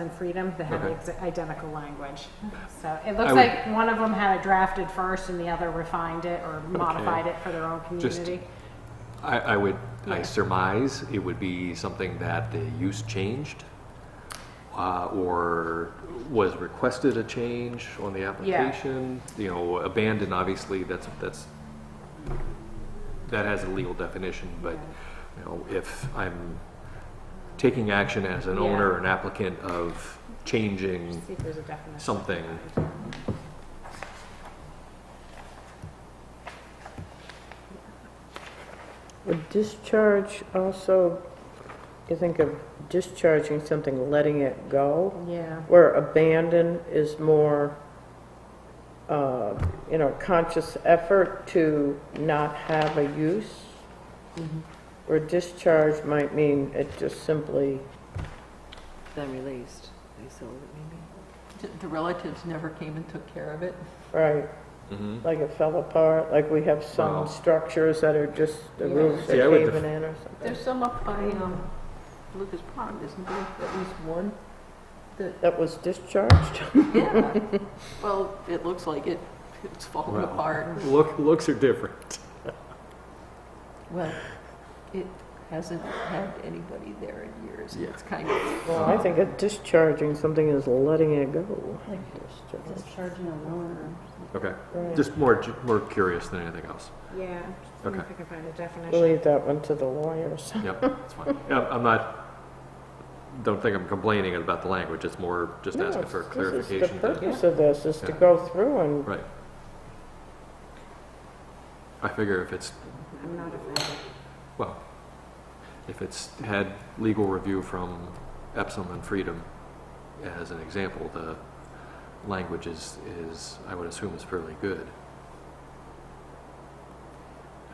and freedom that have the Okay. exa- identical language. So it looks would- like one of them had it drafted first and the other refined it or modified it for their own Just- community. I, I would, I Yeah. surmise it would be something that the use changed uh, or was requested a change on the application. You know, abandoned, obviously, that's, that's, that has a legal definition, but, you know, if I'm taking action as an Yeah. owner, or an applicant of changing See if there's a definition. something, A discharge also, you think of discharging something, letting it go, Yeah, where abandon is more, uh, you know, conscious effort to not have a use. Mm-hmm. Where discharge might mean it just simply, Then released, they sold it maybe? D- The relatives never came and took care of it? right, Mm-hmm. Mhm. like it fell apart, like we have Well- some structures that are just, the Yeah. roofs are See, I would def- caving in or something. There's some up by um, Lucas Pond, isn't there at least one? That was discharged? Yeah. Well, it looks like it, it's falling Well. apart. look, looks are different. Well, it hasn't had anybody there in years. Yeah. It's kind of, Well, I think that discharging something is letting it go. Discharge. Discharging a loan Okay, Right. just more, ju- more curious than anything else. yeah. See if Okay. I can find a definition. Leave that one to the lawyers. Yep, that's fine. Yeah, I'm not, don't think I'm complaining about the language, it's more just No, asking for it's- this is clarification. The to- purpose of this is to Yeah. go through and, Right. I figure if it's, I'm not offended. well, if it's had legal review from Epsom and Freedom as an example, the language is, is, I would assume is fairly good.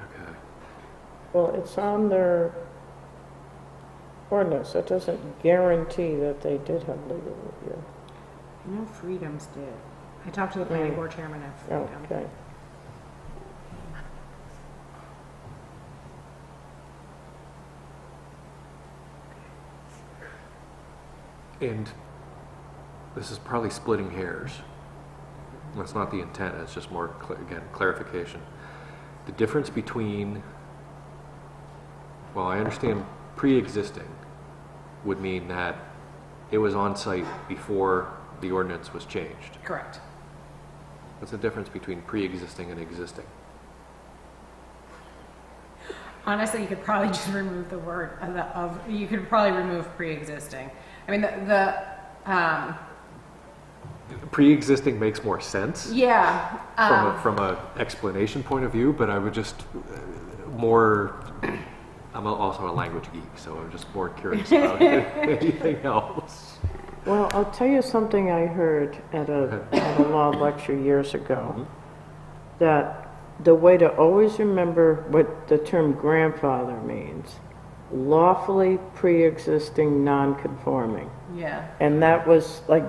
Okay. well, it's on their ordinance. That doesn't guarantee that they did have legal review. I know freedoms did. I talked to the planning Mm. board chairman of freedom. Okay. And this is probably splitting hairs. That's not the intent, it's just more, cl- again, clarification. The difference between, well, I understand pre-existing would mean that it was on site before the ordinance was changed. Correct. What's the difference between pre-existing and existing? Honestly, you could probably just remove the word of, the- of- you could probably remove pre-existing. I mean, the, the, um, Pre-existing makes more sense. yeah. um, from a, from a explanation point of view, but I would just uh, more. I'm a- also a language geek, so I'm just more curious about anything else. Well, I'll tell you something I heard at a, at a law lecture years Mm-hmm. ago. That the way to always remember what the term grandfather means, lawfully pre-existing non-conforming. yeah, And that was like,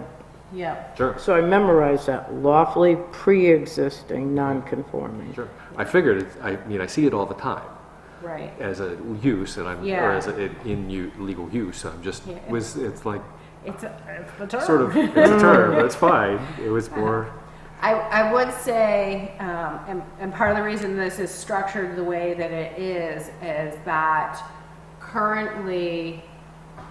yeah. Sure, so I memorized that, lawfully pre-existing non-conforming. sure. I figured. It's, I mean, I see it all the time Right. as a use, and I'm or Yeah. as a, in, in u- legal use. I'm just Yeah. was. It's like It's, a, it's the term. sort of it's a term. That's fine. It was more. I, I would say, um, and, and part of the reason this is structured the way that it is, is that currently,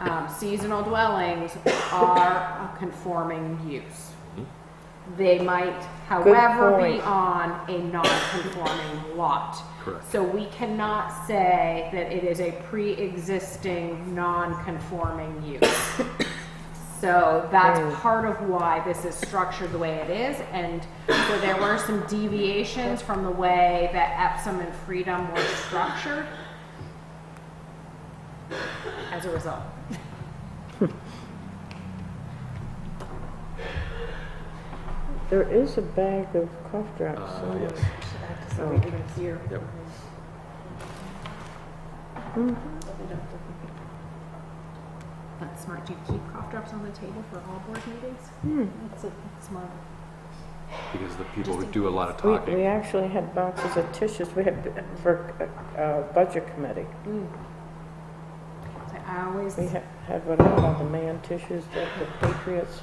um, seasonal dwellings are a conforming use. Mm-hmm. They might, however, be point. on a non-conforming lot. Correct. So we cannot say that it is a pre-existing non-conforming use. So that's part of why this is structured the way it is. And so there were some deviations from the way that Epsom and Freedom were structured as a result. There is a bag of cough drops Uh, somewhere. yes. Yep. Mm-hmm. That's smart. Do you keep cough drops on the table for all board meetings? That's a smart. Because the people who do a lot of We, talking. we actually had boxes of uh, tissues, we had, for, uh, budget committee. Mm. I always We ha- had, what, I call the man tissues, the the Patriots